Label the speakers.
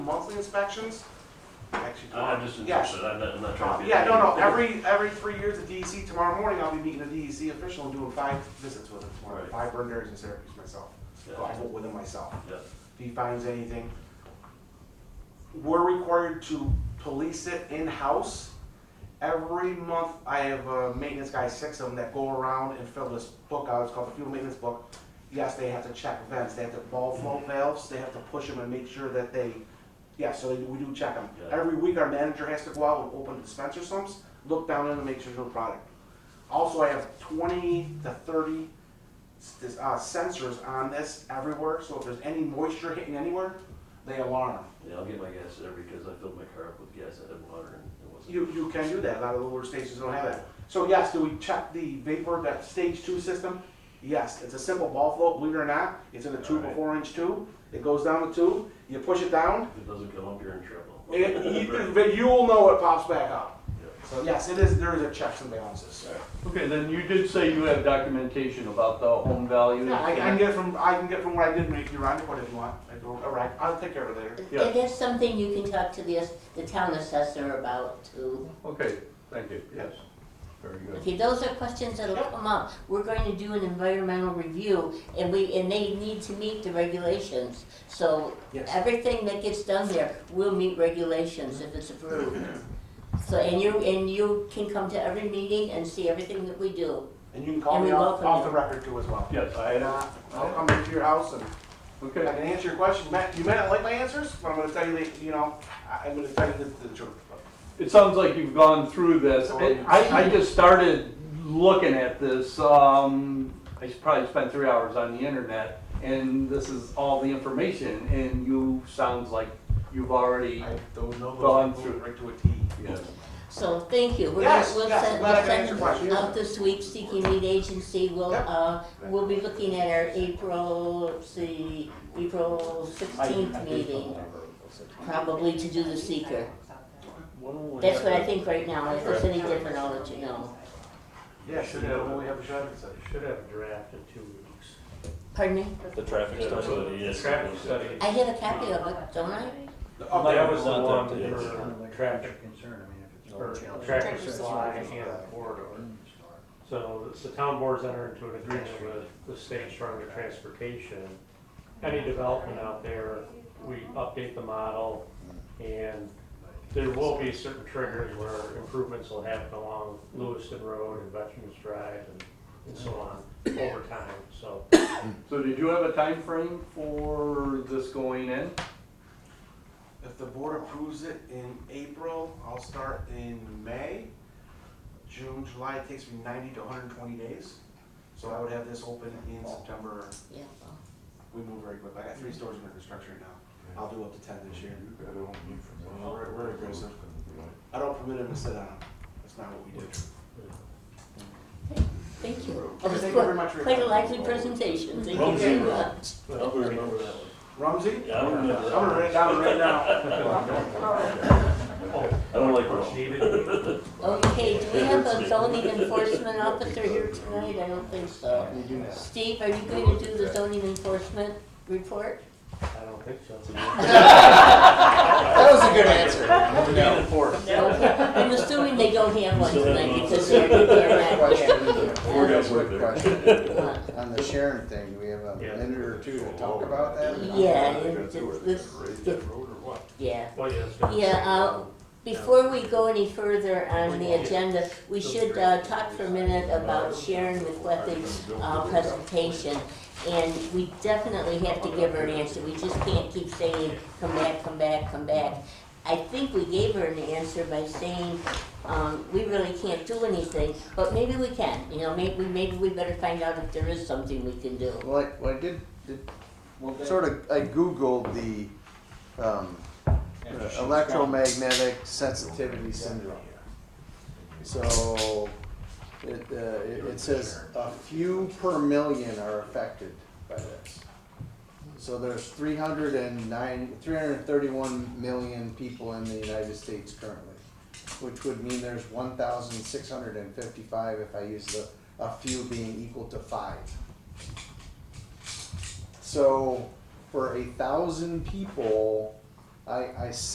Speaker 1: monthly inspections.
Speaker 2: Actually,
Speaker 3: I'm Uh, Oh, just
Speaker 1: Yeah.
Speaker 3: interested, I'm not, I'm not trying to. be-
Speaker 1: Um, Yeah, no, no, every, every three years at DEC, tomorrow morning I'll be meeting a DEC official and doing five visits with him tomorrow.
Speaker 3: Right.
Speaker 1: Five burn areas in Syracuse myself.
Speaker 3: Yeah.
Speaker 1: So I vote with him myself.
Speaker 3: Yeah,
Speaker 1: If he finds anything, we're required to police it in-house. Every month, I have a maintenance guy, six of them, that go around and fill this book out, it's called the fuel maintenance book. Yes, they have to check vents, they have to ball flow valves, they have to push them and make sure that they, yeah, so we do check them.
Speaker 3: Yeah.
Speaker 1: Every week, our manager has to go out and open dispenser sumps, look down in and make sure there's no product. Also, I have twenty to thirty s- this, uh, sensors on this everywhere, so if there's any moisture hitting anywhere, they alarm.
Speaker 3: yeah, I'll get my gas there because I filled my car up with gas, I had water and it wasn't.
Speaker 1: You, you can do that, a lot of the older stations don't have that. So yes, do we check the vapor, that stage two system? Yes, it's a simple ball float, believe it or not, it's in a tube, a
Speaker 3: Alright.
Speaker 1: four inch tube, it goes down the tube, you push it down,
Speaker 3: If it doesn't come up, you're in trouble.
Speaker 1: it, you- but you will know it pops back up.
Speaker 3: Yeah.
Speaker 1: So yes, it is, there is a checks and balances.
Speaker 4: Okay, then you did say you have documentation about the home value.
Speaker 1: Yeah, I, I can get from, I can get from what I did, make you run it, what if you want, I do, all right, I'll take care of it later.
Speaker 4: Yeah.
Speaker 5: If there's something you can talk to the, ass- the town assessor about too.
Speaker 4: Okay, thank you, yes, very good.
Speaker 5: Okay, those are questions that'll
Speaker 1: Yep.
Speaker 5: come up. We're going to do an environmental review and we, and they need to meet the regulations. So everything that gets done there will meet regulations if it's approved. So, and you, and you can come to every meeting and see everything that we do.
Speaker 1: And you can call
Speaker 5: And
Speaker 1: me
Speaker 5: we
Speaker 1: off,
Speaker 5: welcome
Speaker 1: off the
Speaker 5: you.
Speaker 1: record too as well.
Speaker 4: Yes, I
Speaker 1: And
Speaker 4: had,
Speaker 1: uh, I'll come into your house and I
Speaker 4: okay,
Speaker 1: can answer your questions. Matt, you may not like my answers, but I'm gonna tell you that, you know, I- I'm gonna tell you the, the truth.
Speaker 4: it sounds like you've gone through this. I, I I just started looking at this, um, I probably spent three hours on the internet, and this is all the information, and you, sounds like you've already,
Speaker 1: I don't know
Speaker 4: Well, I'm
Speaker 1: those people
Speaker 4: through.
Speaker 1: right to a T.
Speaker 4: yes.
Speaker 5: So, thank you. We're
Speaker 1: Yes,
Speaker 5: gonna- we'll
Speaker 1: yes,
Speaker 5: send-
Speaker 1: glad I
Speaker 5: we'll
Speaker 1: could
Speaker 5: send
Speaker 1: answer questions.
Speaker 5: Out this week, seeking lead agency, we'll,
Speaker 1: Yep.
Speaker 5: uh, we'll be looking at our April, let's see, April sixteenth meeting, probably to do the seeker. That's what I think right now, if there's any different, I'll let you know.
Speaker 1: Yeah, should have, when we have a shot at it.
Speaker 6: Should have a draft in two weeks.
Speaker 5: Pardon me?
Speaker 7: The traffic
Speaker 6: Yeah,
Speaker 7: study.
Speaker 6: so
Speaker 3: yes.
Speaker 6: Traffic study.
Speaker 5: I have a copy of it, don't I?
Speaker 1: Oh,
Speaker 6: That was the
Speaker 7: not
Speaker 6: one
Speaker 7: that big.
Speaker 6: for traffic,
Speaker 8: concern, I mean, if it's.
Speaker 6: for
Speaker 8: urgent.
Speaker 6: traffic Mm.
Speaker 5: Traffic
Speaker 6: supply
Speaker 1: supply.
Speaker 6: and the corridor. So it's the town boards enter into an agreement with the state Department of Transportation. Any development out there, we update the model and there will be certain triggers where improvements will happen along Lewiston Road and Veterans Drive and, and so on over time, so.
Speaker 4: So did you have a time frame for this going in?
Speaker 1: If the board approves it in April, I'll start in May. June, July, it takes me ninety to hundred and twenty days. So I would have this open in September.
Speaker 5: Yeah. well,
Speaker 1: We move very quick. I got three stores under construction right now. I'll do up to ten this year. We're, we're aggressive. I don't permit him to sit on them. That's not what we do.
Speaker 5: Thank you.
Speaker 1: Okay,
Speaker 5: That was
Speaker 1: thank you very
Speaker 5: quite
Speaker 1: much for your
Speaker 5: quite a
Speaker 1: time.
Speaker 5: lively presentation, thank you
Speaker 3: Rome's
Speaker 5: very
Speaker 3: in Rome.
Speaker 5: much.
Speaker 3: I'll remember that one.
Speaker 1: Rumsey?
Speaker 3: Yeah, I remember that.
Speaker 1: I'm gonna write it down right now.
Speaker 3: I don't like
Speaker 6: What's
Speaker 3: Rome.
Speaker 6: needed.
Speaker 5: Okay, do we have a
Speaker 3: That's me.
Speaker 5: zoning enforcement officer here tonight? I don't think so. Steve, are you going to do the zoning enforcement report?
Speaker 6: I don't think so.
Speaker 8: That was a good answer.
Speaker 5: No. I'm assuming they don't have one
Speaker 3: Still have
Speaker 5: tonight
Speaker 3: one.
Speaker 5: because they're, they're not here.
Speaker 3: We're gonna
Speaker 8: Quick
Speaker 3: work there.
Speaker 8: question. On the Sharon thing, do we have a minute or two to talk about that?
Speaker 5: Yeah, it's- it's- it's- yeah.
Speaker 6: Well, yeah, it's gonna-
Speaker 5: Yeah, uh, before we go any further on the agenda, we should, uh, talk for a minute about Sharon McClethan's, uh, presentation. And we definitely have to give her an answer, we just can't keep saying, come back, come back, come back. I think we gave her an answer by saying, um, we really can't do anything, but maybe we can, you know, maybe, maybe we better find out if there is something we can do.
Speaker 8: Well, I, well, I did, did, sort of, I Googled the, um, uh, electromagnetic sensitivity syndrome. So, it, uh, it, it says a few per million are affected by this. So there's three hundred and nine, three hundred and thirty-one million people in the United States currently, which would mean there's one thousand six hundred and fifty-five if I use the, a few being equal to five. So, for a thousand people, I, I